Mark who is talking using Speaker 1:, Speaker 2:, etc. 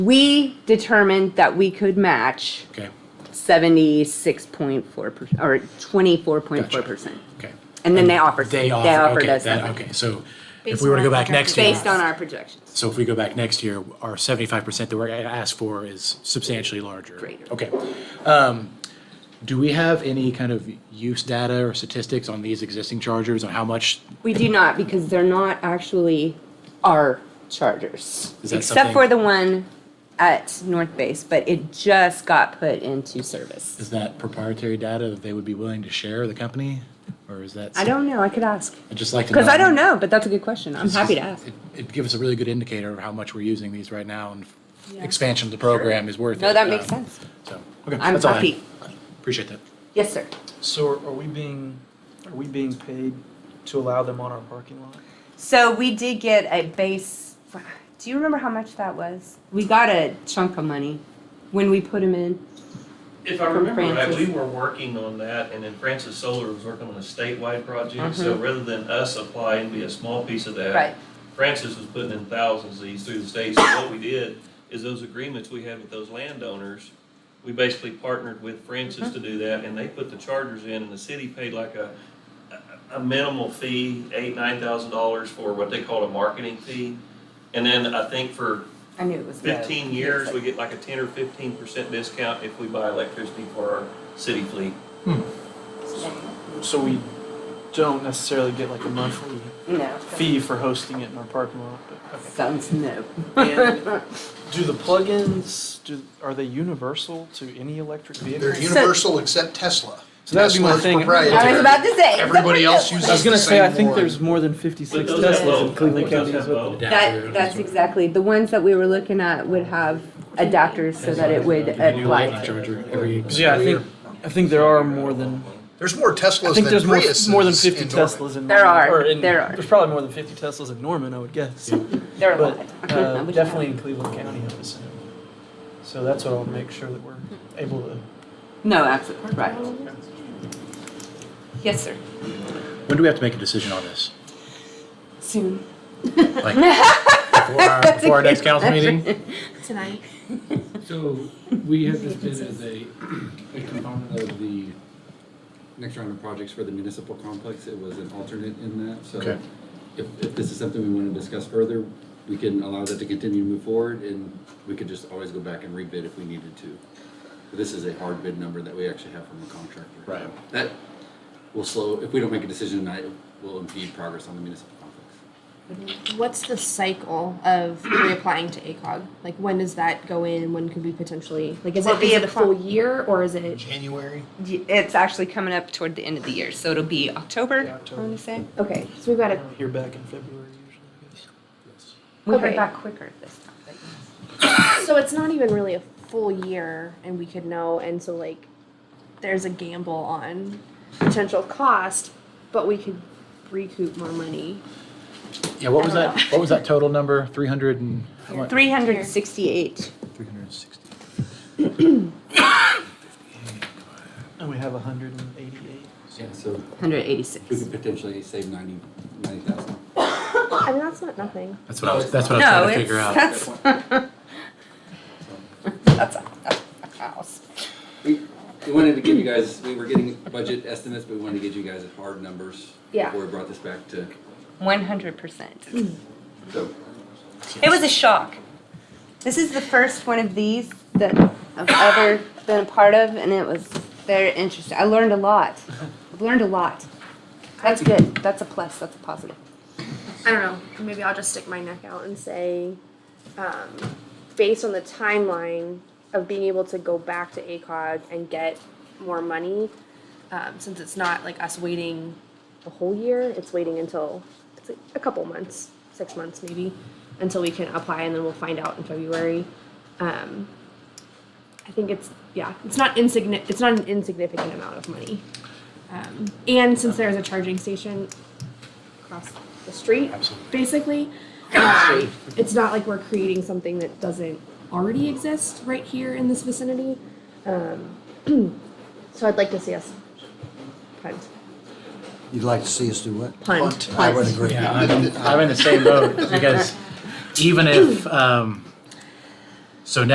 Speaker 1: We determined that we could match
Speaker 2: Okay,
Speaker 1: seventy-six point four percent, or twenty-four point four percent.
Speaker 2: okay.
Speaker 1: And then they offered,
Speaker 2: They
Speaker 1: they
Speaker 2: offer,
Speaker 1: offered
Speaker 2: okay,
Speaker 1: us
Speaker 2: that,
Speaker 1: that,
Speaker 2: okay, so if
Speaker 3: Based
Speaker 2: we were to
Speaker 3: on
Speaker 2: go
Speaker 3: our
Speaker 2: back next year.
Speaker 1: based on our projections.
Speaker 2: So if we go back next year, our seventy-five percent that we're asked for is substantially larger.
Speaker 1: Greater.
Speaker 2: Okay. Um, do we have any kind of use data or statistics on these existing chargers on how much?
Speaker 1: We do not, because they're not actually our chargers.
Speaker 2: Is that
Speaker 1: Except for the
Speaker 2: something-
Speaker 1: one at North Base, but it just got put into service.
Speaker 2: Is that proprietary data that they would be willing to share the company? Or is that?
Speaker 1: I don't know, I could ask.
Speaker 2: I'd just like to know.
Speaker 1: Because I don't know, but that's a good question. I'm happy to ask.
Speaker 2: It- It'd give us a really good indicator of how much we're using these right now and expansion of the program is worth it.
Speaker 1: No, that makes
Speaker 2: Um,
Speaker 1: sense.
Speaker 2: So, okay,
Speaker 1: I'm
Speaker 2: that's all I have.
Speaker 1: happy. Uh,
Speaker 2: Appreciate that.
Speaker 1: Yes, sir.
Speaker 4: So are are we being, are we being paid to allow them on our parking lot?
Speaker 1: So we did get a base. Do you remember how much that was? We got a chunk of money when we put them in.
Speaker 5: If I
Speaker 1: From
Speaker 5: remember right, we
Speaker 1: Francis.
Speaker 5: were working on that, and then Francis Solar was working on a statewide project, so rather than us apply and be a small piece of that.
Speaker 1: Mm-hmm. Right.
Speaker 5: Francis was putting in thousands of these through the state, so what we did is those agreements we had with those landowners, we basically partnered with Francis
Speaker 1: Mm-hmm.
Speaker 5: to do that, and they put the chargers in, and the city paid like a, a minimal fee, eight, nine thousand dollars for what they call a marketing fee. And then I think for
Speaker 1: I knew it was low.
Speaker 5: fifteen years, we get like a ten or fifteen percent discount if we buy electricity for our city fleet.
Speaker 4: So we don't necessarily get like a monthly
Speaker 1: No.
Speaker 4: fee for hosting it in our parking lot, but, okay.
Speaker 1: Sounds no.
Speaker 4: And do the plugins, do, are they universal to any electric
Speaker 6: They're
Speaker 4: vehicle?
Speaker 1: uni-
Speaker 6: universal except Tesla.
Speaker 4: So that would be my
Speaker 6: Tesla's
Speaker 4: thing.
Speaker 6: proprietary.
Speaker 1: I was about to say.
Speaker 6: Everybody else uses
Speaker 4: I was gonna
Speaker 6: the
Speaker 4: say, I
Speaker 6: same
Speaker 4: think
Speaker 6: one.
Speaker 4: there's more than fifty-six
Speaker 5: But those have
Speaker 4: Teslas in
Speaker 5: both.
Speaker 4: Cleveland
Speaker 5: Those
Speaker 4: County.
Speaker 5: have both.
Speaker 1: That, that's exactly, the ones that we were looking at would have adapters so that it would
Speaker 2: A new
Speaker 1: apply
Speaker 2: lightning
Speaker 1: to.
Speaker 2: charger every.
Speaker 4: Yeah, I think, I think there are more than,
Speaker 6: There's more
Speaker 4: I
Speaker 6: Teslas than
Speaker 4: think there's more,
Speaker 6: Priuses.
Speaker 4: more than fifty
Speaker 6: in Norman.
Speaker 4: Teslas in Norman.
Speaker 1: There are,
Speaker 4: or in-
Speaker 1: there are.
Speaker 4: There's probably more than fifty Teslas in Norman, I would guess.
Speaker 1: They're a
Speaker 4: But
Speaker 1: lot.
Speaker 4: uh, definitely in Cleveland County, I would assume. So that's what I'll make sure that we're able to.
Speaker 1: No, absolutely, right. Yes, sir.
Speaker 2: When do we have to make a decision on this?
Speaker 1: Soon.
Speaker 2: Like before our, before our next council meeting?
Speaker 3: Tonight.
Speaker 7: So we have this bid as a, a component of the next round of projects for the municipal complex. It was an alternate in that, so
Speaker 2: Okay.
Speaker 7: if, if this is something we want to discuss further, we can allow that to continue to move forward and we could just always go back and rebid if we needed to. But This is a hard bid number that we actually have from a contractor.
Speaker 2: Right.
Speaker 7: That will slow, if we don't make a decision tonight, it will impede progress on the municipal complex.
Speaker 3: What's the cycle of reapplying to ACOG? Like, when does that go in? When could we potentially, like, is
Speaker 1: Well,
Speaker 3: it, is it a
Speaker 1: reapply-
Speaker 3: full year or is it?
Speaker 6: January.
Speaker 1: It's actually coming up toward the end of the year, so it'll be October,
Speaker 4: Yeah,
Speaker 1: I
Speaker 4: October.
Speaker 1: want to say.
Speaker 3: Okay, so we've got
Speaker 4: I
Speaker 3: a,
Speaker 4: don't hear back in February usually, I guess.
Speaker 1: We heard
Speaker 3: Okay.
Speaker 1: back quicker this time. but yes.
Speaker 3: so it's not even really a full year and we could know, and so like, there's a gamble on potential cost, but we could recoup more money.
Speaker 2: Yeah, what was
Speaker 3: I don't
Speaker 2: that, what was that total number? Three hundred and? how much?
Speaker 1: 368.
Speaker 2: 360.
Speaker 4: And we have hundred and eighty-eight.
Speaker 7: Yeah, so we
Speaker 1: 186.
Speaker 7: could potentially save ninety, ninety thousand.
Speaker 3: I mean, that's not nothing.
Speaker 2: That's what I was, that's what I
Speaker 1: No,
Speaker 2: was trying to
Speaker 1: it's,
Speaker 2: figure out.
Speaker 1: that's, that's a, that's a house.
Speaker 7: We, we wanted to give you guys, we were getting budget estimates, but we wanted to get you guys hard numbers.
Speaker 3: Yeah.
Speaker 7: Before we brought this back to,
Speaker 1: 100%.
Speaker 7: so,
Speaker 1: It was a shock. This is the first one of these that I've ever been a part of, and it was very interesting. I learned a lot. I've learned a lot. That's good. That's a plus. That's a positive.
Speaker 3: I don't know. Maybe I'll just stick my neck out and say, um, based on the timeline of being able to go back to ACOG and get more money, um, since it's not like us waiting a whole year, it's waiting until it's like a couple months, six months maybe, until we can apply, and then we'll find out in February. Um, I think it's yeah, it's not insignificant. It's not an insignificant amount of money, um, and since there is a charging station across the street,
Speaker 2: Absolutely.
Speaker 3: basically. Um, it's not like we're creating something that doesn't already exist right here in this vicinity. Um, so I'd like to see us punt.
Speaker 8: You'd like to see us do what?
Speaker 3: Punt.
Speaker 8: I would agree.
Speaker 2: Yeah, I'm, I'm in the same boat because even if, um,